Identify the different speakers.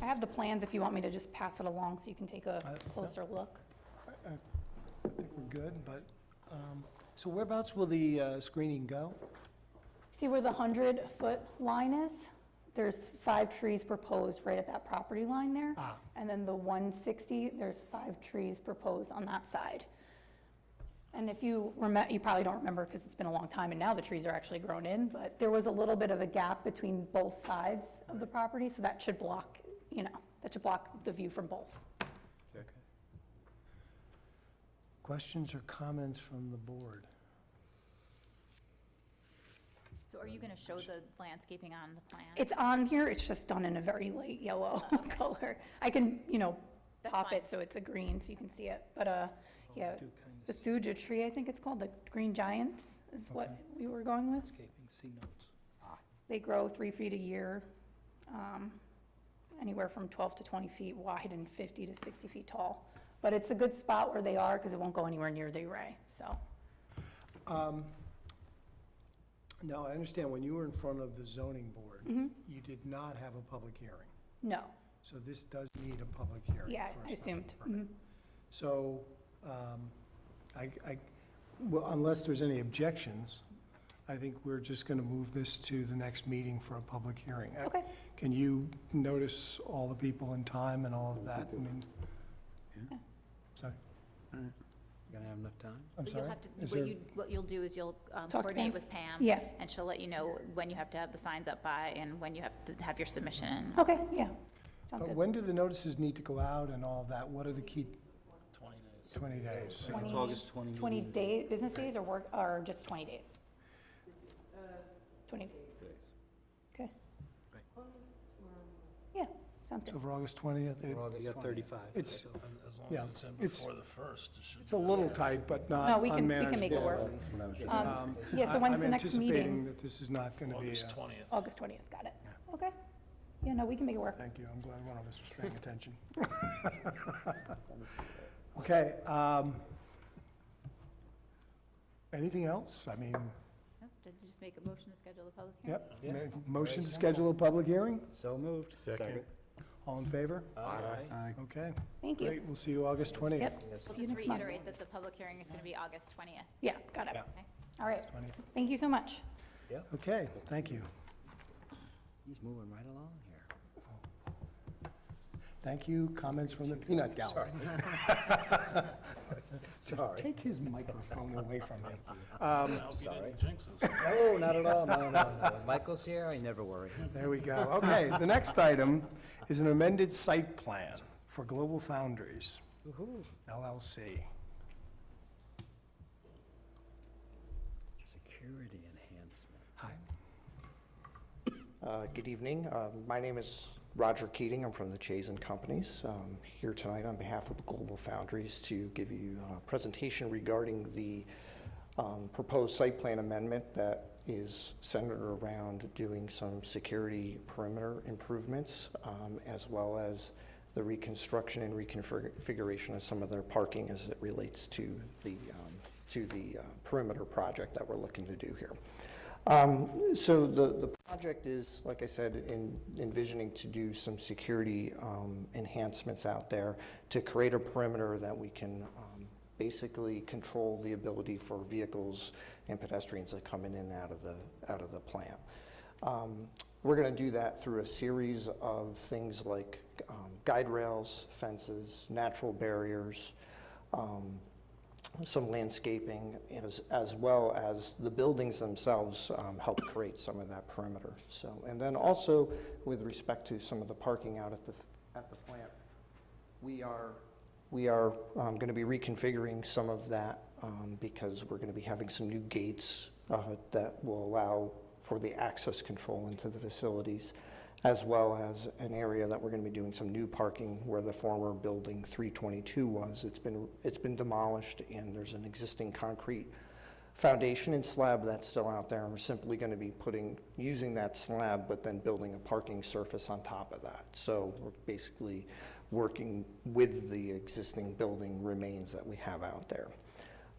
Speaker 1: I have the plans if you want me to just pass it along so you can take
Speaker 2: I-
Speaker 1: a closer look.
Speaker 2: I think we're good, but, um, so whereabouts will the uh, screening go?
Speaker 1: See where the 100-foot line is? There's five trees proposed right at that property line there.
Speaker 2: Ah.
Speaker 1: And then the 160, there's five trees proposed on that side. And if you remember, you probably don't remember because it's been a long time and now the trees are actually grown in, but there was a little bit of a gap between both sides of the property, so that should block, you know, that should block the view from both.
Speaker 2: Questions or comments from the board?
Speaker 3: So are you going to show the landscaping on the plan?
Speaker 1: It's on here, it's just done in a very light yellow color. I can, you know,
Speaker 3: That's
Speaker 1: pop
Speaker 3: fine.
Speaker 1: it so it's a green so you can see it, but, uh, yeah.
Speaker 4: do kind of-
Speaker 1: The Thuja tree, I think it's called, the green giants is what
Speaker 2: Okay.
Speaker 1: we were going with.
Speaker 4: Landscaping, see notes.
Speaker 1: They grow three feet a year, um, anywhere from 12 to 20 feet wide and 50 to 60 feet tall. But it's a good spot where they are because it won't go anywhere near the array, so.
Speaker 2: Um, No, I understand, when you were in front of the zoning board,
Speaker 1: Mm-hmm.
Speaker 2: you did not have a public hearing.
Speaker 1: No,
Speaker 2: So this does need a public hearing.
Speaker 1: yeah,
Speaker 2: for a
Speaker 1: I
Speaker 2: special
Speaker 1: assumed.
Speaker 2: permit.
Speaker 1: Mhm.
Speaker 2: So, um, I, I, well, unless there's any objections, I think we're just going to move this to the next meeting for a public hearing. Uh,
Speaker 1: Okay.
Speaker 2: Can you notice all the people in time and all of that? I mean, sorry,
Speaker 5: Gonna have enough time?
Speaker 2: I'm
Speaker 3: But you'll
Speaker 2: sorry?
Speaker 3: have to,
Speaker 2: Is
Speaker 3: what
Speaker 2: there-
Speaker 3: you, what you'll do is you'll
Speaker 1: Talk
Speaker 3: um,
Speaker 1: to Pam.
Speaker 3: coordinate with Pam.
Speaker 1: Yeah.
Speaker 3: And she'll let you know when you have to have the signs up by and when you have to have your submission.
Speaker 1: Okay, yeah, sounds
Speaker 2: But
Speaker 1: good.
Speaker 2: when do the notices need to go out and all of that? What are the key,
Speaker 4: 20 days.
Speaker 2: 20 days?
Speaker 1: 20
Speaker 4: August 20.
Speaker 1: 20 days, business days or work, or just 20 days? 20? Okay.
Speaker 4: Right.
Speaker 1: Yeah, sounds
Speaker 2: So
Speaker 1: good.
Speaker 2: for August 20th? it-
Speaker 5: You got 35.
Speaker 2: It's,
Speaker 6: As long
Speaker 2: Yeah,
Speaker 6: as it's in
Speaker 2: it's-
Speaker 6: before the first, it should
Speaker 2: it's a little tight, but
Speaker 1: No,
Speaker 2: not
Speaker 1: we can- we can make it
Speaker 2: unmanageable.
Speaker 1: work.
Speaker 7: That's what I was just
Speaker 1: Um, Yeah, so when's the next
Speaker 2: I'm anticipating
Speaker 1: meeting?
Speaker 2: that this is not going to be, uh,
Speaker 6: August
Speaker 2: a-
Speaker 6: 20th.
Speaker 1: August 20th, got it. Okay. Yeah, no, we can make it work.
Speaker 2: thank you, I'm glad one of us was paying attention. Okay. um, Anything else? I mean,
Speaker 3: Nope, Did you just make a motion to schedule the public hearing?
Speaker 2: yep, ma- motion to schedule a public hearing?
Speaker 5: So moved.
Speaker 7: Second.
Speaker 2: All in favor?
Speaker 5: Aye.
Speaker 2: Okay,
Speaker 1: Thank
Speaker 2: great,
Speaker 1: you.
Speaker 2: we'll see you August 20th.
Speaker 1: Yep,
Speaker 3: We'll
Speaker 1: see you
Speaker 3: just
Speaker 1: next month.
Speaker 3: reiterate that the public hearing is going to be August 20th.
Speaker 1: Yeah, got it.
Speaker 2: Yeah.
Speaker 3: Okay.
Speaker 1: All right.
Speaker 2: 20th.
Speaker 1: Thank you so much.
Speaker 2: Okay, thank you.
Speaker 5: He's moving right along here.
Speaker 2: Thank you, comments from the peanut gallery.
Speaker 5: Sorry.
Speaker 2: Take his microphone away from him.
Speaker 6: I hope you didn't jinx us.
Speaker 5: No, not at all, no, no, no. Michael's here, I never worry.
Speaker 2: There we go. Okay, the next item is an amended site plan for Global Foundries
Speaker 5: Woo-hoo.
Speaker 2: LLC.
Speaker 5: Security enhancement.
Speaker 2: Hi.
Speaker 8: Uh, Good evening. Uh, My name is Roger Keating. I'm from the Chase and Companies. Um, Here tonight on behalf of Global Foundries to give you a presentation regarding the um, proposed site plan amendment that is centered around doing some security perimeter improvements um, as well as the reconstruction and reconfiguration of some of their parking as it relates to the, um, to the uh, perimeter project that we're looking to do here. Um, So the, the project is, like I said, in envisioning to do some security um, enhancements out there to create a perimeter that we can um, basically control the ability for vehicles and pedestrians that come in and out of the, out of the plant. Um, We're going to do that through a series of things like um, guide rails, fences, natural barriers, um, some landscaping as, as well as the buildings themselves um, help create some of that perimeter. So, and then also with respect to some of the parking out at the, at the plant, we are, we are going to be reconfiguring some of that um, because we're going to be having some new gates uh, that will allow for the access control into the facilities, as well as an area that we're going to be doing some new parking where the former building 322 was. It's been, it's been demolished, and there's an existing concrete foundation and slab that's still out there, and we're simply going to be putting, using that slab, but then building a parking surface on top of that. So we're basically working with the existing building remains that we have out there.